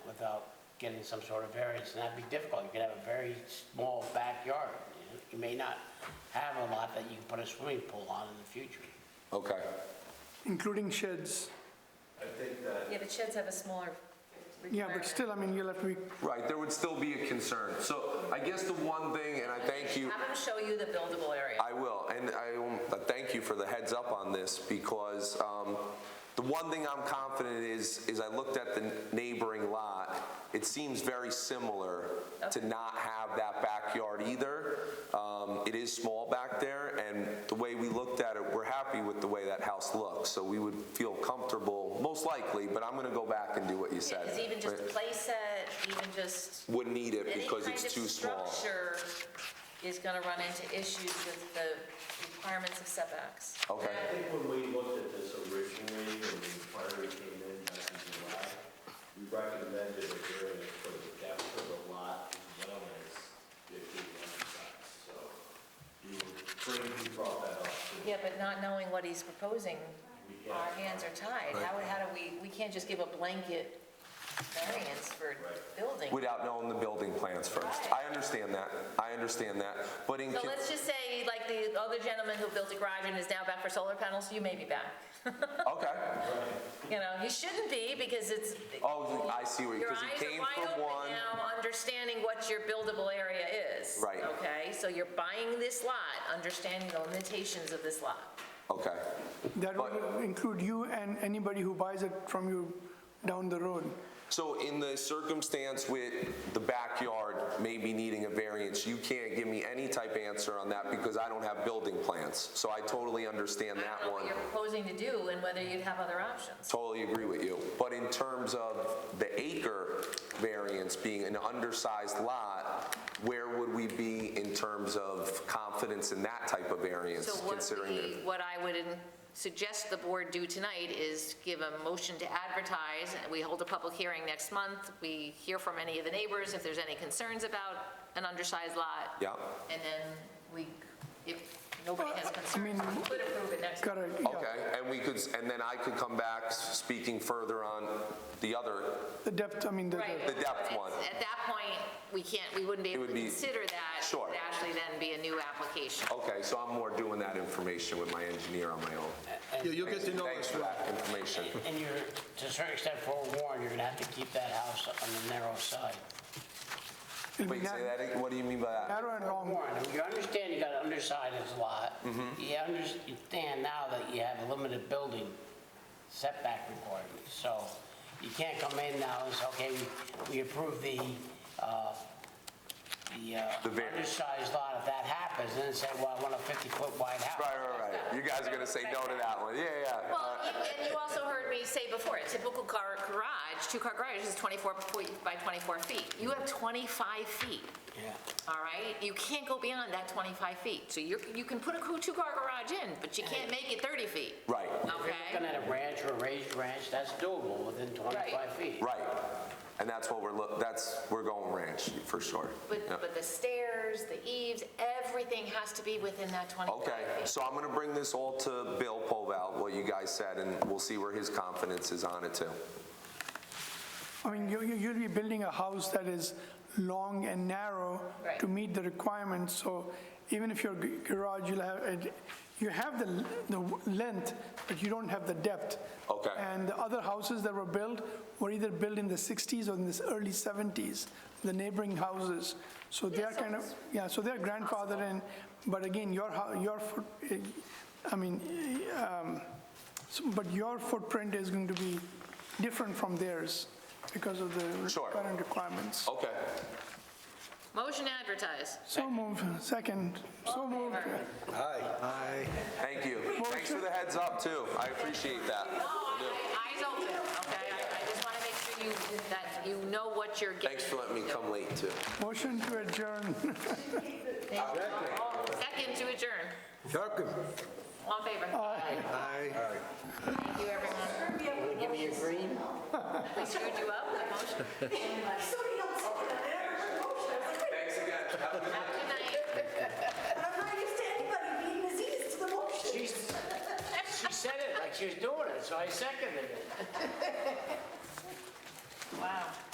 getting some sort of variance, and that'd be difficult. You could have a very small backyard. You know? You may not have a lot that you can put a swimming pool on in the future. Okay. including sheds. I think that Yeah, but sheds have a smaller Yeah, but requirement. still, I mean, you'll have to be, Right, there would still be a concern. So I guess the one thing, and I thank you. Have them show you the buildable area. I will, and I will- uh, thank you for the heads up on this, because um, the one thing I'm confident is, is I looked at the neighboring lot, it seems very similar to not have that backyard either. Um, It is small back there, and the way we looked at it, we're happy with the way that house looks, so we would feel comfortable, most likely, but I'm gonna go back and do what you said. Because even just a Right. playset, even just Wouldn't need it any because kind it's too of small. structure is going to run into issues with the requirements of setbacks. Okay. I think when we looked at this originally, when the inquiry came in back in July, we recommended a variance for the depth of the lot as well as the lot size. So you bring, you brought that up. so Yeah, but not knowing what he's proposing, our hands are tied. How, how do we, we can't just give a blanket variance for building. Without knowing the building plans first. I understand that, I understand that, but in, So con- let's just say, like the other gentleman who built a garage and is now back for solar panels, you may be back. okay. You know, he shouldn't be because it's, Oh, I see where, Your because eyes he came are wide from one. open now, understanding what your buildable area is. Right. Okay, so you're buying this lot, understanding the limitations of this lot. Okay, that would include you and anybody who buys it from you down the road. so in the circumstance with the backyard maybe needing a variance, you can't give me any type of answer on that because I don't have building plans. So I totally understand I that don't know one. what you're proposing to do and whether you'd have other options. Totally agree with you. But in terms of the acre variance being an undersized lot, where would we be in terms of confidence in that type of So variance what considering? we, it? what I would in- suggest the board do tonight is give a motion to advertise. and We hold a public hearing next month. We hear from any of the neighbors if there's any concerns about an undersized lot. Yeah, And then we, if nobody has Well, I concerns, mean- we could approve it next. Correct, yeah. okay, and we could, and then I could come back s- speaking further on the other, The depth, I mean, the, Right. The depth It's- one. At that point, we can't, we wouldn't be able to would be- consider that. Sure. It would actually then be a new application. okay, so I'm more doing that information with my engineer on my own. Yeah, you'll get to know Thanks us for well. that information. And you're, to a certain extent forewarned, you're gonna have to keep that house on the narrow side. it'll be Wait, say nar- that, ag- what do you mean by that? narrow and long. Warren, you understand you got an undersized lot. Mm-hmm. You understand now that you have a limited building setback requirement. So you can't come in now and say, okay, we- we approve the, uh, the The uh, variance. undersized lot. If that happens, then say, well, I want a 50-foot wide house. Right, right, right, you guys are gonna say no to that one, yeah, yeah. Well, you- and you also heard me say before, a typical car garage, two-car garage is 24 feet by 24 feet. You have 25 feet, Yeah. all right? You can't go beyond that 25 feet. So you're, you can put a cou- two-car garage in, but you can't make it 30 feet. Right, Looking Okay? at a ranch or a raised ranch, that's doable within 25 feet. right, and that's what we're, look. that's, we're going ranch, for sure. But, Yeah. but the stairs, the eaves, everything has to be within that 25 feet. Okay, so I'm gonna bring this all to Bill Povall, what you guys said, and we'll see where his confidence is on it too. I mean, you, you- you'll be building a house that is long and narrow Right. to meet the requirements, so even if your g- garage, you'll have, it- you have the, l- the w- length, but you don't have the depth. Okay. And the other houses that were built were either built in the 60s or in the early 70s, the neighboring houses. So they are kind of, yeah, so they're grandfathered in, but again, your, hou- your, foot- eh, I mean, eh, um, so- but your footprint is going to be different from theirs because of the Sure. current requirements. Okay, Motion to advertise. So move, second, so move. thank you. Thanks for the heads up too, I appreciate that. Oh, I do. I- eyes open, okay? I- I just want to make sure you, that you know what you're getting. Thanks for letting me come late too. Motion to adjourn. Second to adjourn. Second. All in favor? Aye. Thank you, everyone. Give me your green. We screwed you up with motion. Somebody else said that, I heard a motion, I was like, wait, Thanks again. Have a good night. and I'm not used to anybody being as easy to the motion. She she said it like she was doing it, so I seconded it. Wow.